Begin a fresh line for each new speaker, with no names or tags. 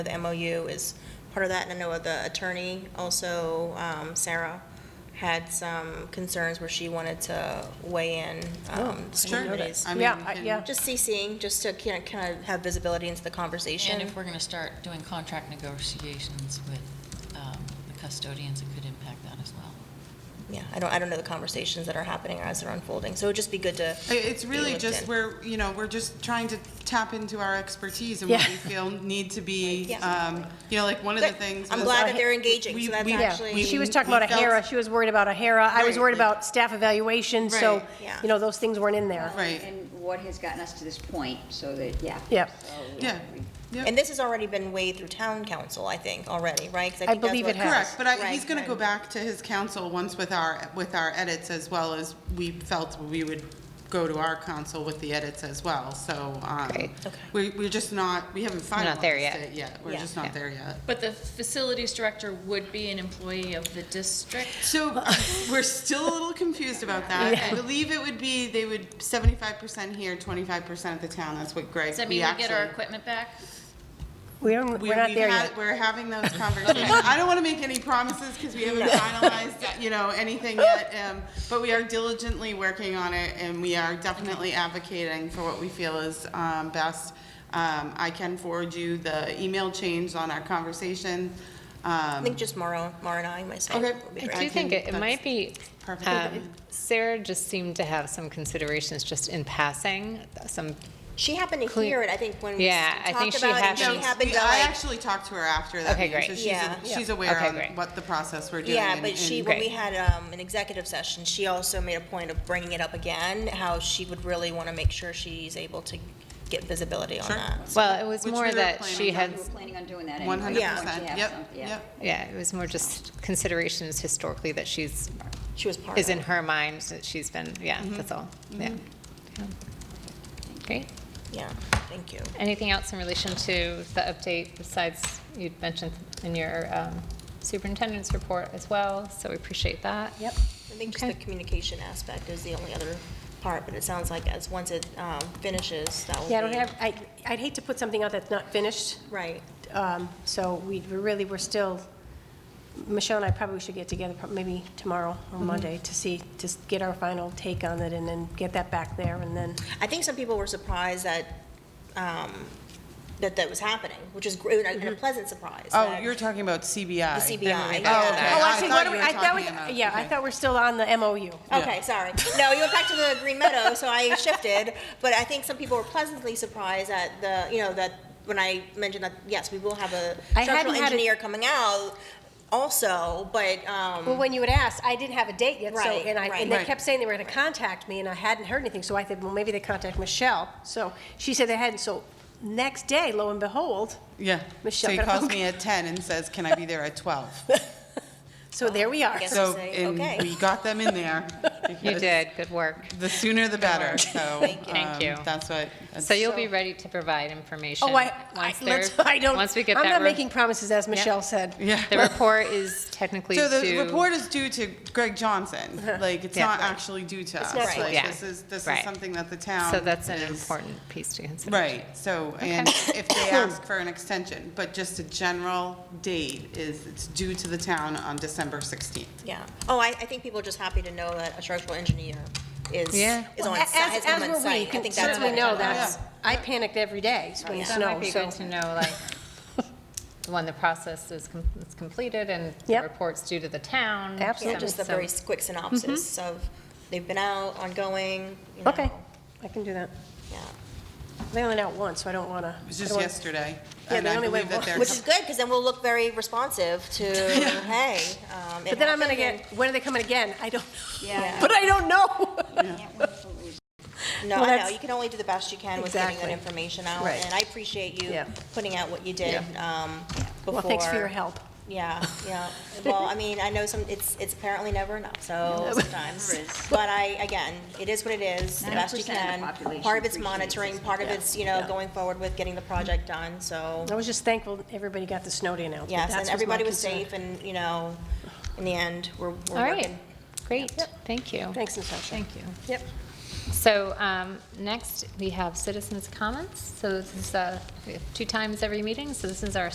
The MOU is part of that, and I know the attorney also, um, Sarah, had some concerns where she wanted to weigh in. um, some
Sure.
committees.
I mean,
Yeah,
we
I-
can-
yeah.
Just CCing, just to kind of, kind of have visibility into the conversation.
And if we're going to start doing contract negotiations with um, the custodians, it could impact that as well.
Yeah, I don't, I don't know the conversations that are happening as they're unfolding, so it'd just be good to.
I- It's
be
really
looked
just,
in.
we're, you know, we're just trying to tap into our expertise and what we
Yeah.
feel need to be,
Yeah.
um, you know, like, one of the
Good.
things.
I'm
was-
glad that they're engaging,
we-
so that's
we-
Yeah,
actually-
she was
we-
talking
we
about a
felt-
HERA, she was worried about a HERA, I was
Right,
worried
like-
about staff evaluation, so,
Right.
Yeah.
you know, those things weren't in there.
Right.
And what has gotten us to this point, so that, yeah.
Yep.
So,
Yeah,
we-
yeah.
And this has already been weighed through town council, I think, already, right? 'Cause
I
think that's
believe
what-
it has.
Correct, but I-
Right,
he's gonna go
right.
back to his council once with our, with our edits as well as we felt we would go to our council with the edits as well, so, um,
Great.
Okay.
we, we're just not, we haven't
We're
finalized
not there yet.
it yet, we're
Yeah.
just not there yet.
But the facilities director would be an employee of the district?
So we're still a little confused about that. I believe it would be, they would seventy-five percent here, twenty-five percent at the town. That's what Greg,
Does that
we
mean we get our
actually-
equipment back?
We don't,
we-
we're not
we've
there
had-
yet.
We're having those conversations. I don't want to make any promises because we haven't finalized, you know, anything yet. um, But we are diligently working on it and we are definitely advocating for what we feel is um, best. Um, I can forward you the email change on our conversation.
I
Um,
think just Mara, Mara and I, myself.
Okay.
would be
I
great.
Right.
I do think
think
it it might
that's
be,
perfect.
um, Sarah just seemed to have some considerations just in passing, some,
She happened to
Clear-
hear it, I think, when we
Yeah,
s-
I think
talked
she
about it, and she
happened-
No,
happened
we-
to
I
like,
actually talked to her after that
Okay,
meeting, so
great.
she's,
Yeah.
she's aware
Okay,
on
great.
what the process we're doing.
yeah,
and-
but she,
and-
when we
Great.
had um, an executive session, she also made a point of bringing it up again, how she would really want to make sure she's able to get visibility on
Sure.
that.
well, it was
Which we
more
were
that
planning
she
on.
had,
We were planning on doing that anyway.
One hundred
once you
percent,
have
yep,
some-
yep.
yeah, it was more just considerations historically that she's,
She was part of
is in
it.
her mind, that she's been, yeah,
Mm-hmm.
that's all, yeah. Yeah. Great.
Yeah, thank you.
Anything else in relation to the update besides you'd mentioned in your um, superintendent's report as well, so we appreciate that. Yep.
I think just the communication aspect is the only other part, but it sounds like as, once it um, finishes, that will be.
Yeah, I don't have, I, I'd hate to put something out that's not finished,
Right.
um, so we we really, we're still, Michelle and I probably should get together, prob- maybe tomorrow or Monday, to see, to s- get our final take on it, and then get that back there, and then,
I think some people were surprised that, um, that that was happening, which is great, and a pleasant surprise.
Oh,
that-
you were talking about CBI.
The CBI,
Oh,
yeah.
okay.
Oh,
I see, what
thought
do
you
we-
were
I thought
talking
we-
about-
Yeah, I
okay.
thought we're still on the MOU.
Okay, sorry. No, you went back to the Green Meadow, so I shifted. But I think some people were pleasantly surprised at the, you know, that when I mentioned that, yes, we will have a
I
structural
hadn't had it-
engineer coming out also, but, um,
Well, when you had asked, I didn't have a date yet, so,
Right,
and I,
right.
and they
Right.
kept saying they were gonna contact me, and I hadn't heard anything, so I said, well, maybe they contact Michelle. So she said they hadn't, so next day, lo and behold,
Yeah. So
Michelle
he
got a
calls
phone
me at ten and says, can I be there at twelve?
so there we are.
Yes.
So,
Say,
and
okay.
we got them in there.
You
because
did, good work.
The sooner the better, so.
Thank
um,
you.
That's what.
So you'll be ready to provide information.
Oh, I, I,
once
let's,
there-
I don't,
Once we get
I'm
that.
not
re-
making promises, as Michelle said.
Yeah.
The report is technically due.
So the report is due to Greg Johnson. Like, it's
Yeah.
not actually due to us.
not
Like,
due.
Yeah.
This is, this is
Right.
something that the town.
So that's an
is-
important piece to consider.
Right, so, and if they ask for an extension, but just a general date is, it's due to the town on December 16th.
yeah. Oh, I, I think people are just happy to know that a structural engineer is,
Yeah.
is on
Well,
site, has come
as
on
were we,
site. I
can
think that's
certainly
what-
know that. I panicked every day when it
That might
snowed,
be
so.
good to know, like, when the process is com- is completed and the
Yep.
report's due to the town.
Yeah,
Absolutely.
just a
So-
very quick synopsis of they've been out, ongoing, you know.
mm-hmm. Okay, I can do that.
Yeah,
They only out once, so I don't wanna.
It was
I
just
don't wanna-
yesterday.
Yeah,
and
they
I
only
believe
went
that
one-
they're
which is good, because then we'll look very responsive to, hey, um, it
But then I'm gonna
happened and-
get, when are they coming again? I don't,
Yeah.
but I don't know.
Can't wait till we-
No,
Well,
I know,
that's-
you can only do the best you can with getting that
Exactly.
information out,
Right.
and I appreciate you
Yeah.
putting out what you did, um, before.
Well, thanks for your help.
Yeah, yeah, well, I mean, I know some, it's, it's apparently never enough, so sometimes,
Never is.
but I, again, it is what it is, the best you
9% of
can.
the population
Part of it's
appreciates
monitoring,
this.
part of
Yeah.
it's, you know, going forward with getting the project done, so,
I was just thankful everybody got the snow day announcement.
yes,
That
and
my
everybody was
concern.
safe, and, you know, in the end, we're, we're
All right,
working.
great, thank you.
Thanks, Natasha.
Thank you.
Yep.
So um, next, we have citizens' comments. So this is, uh, we have two times every meeting, so this is our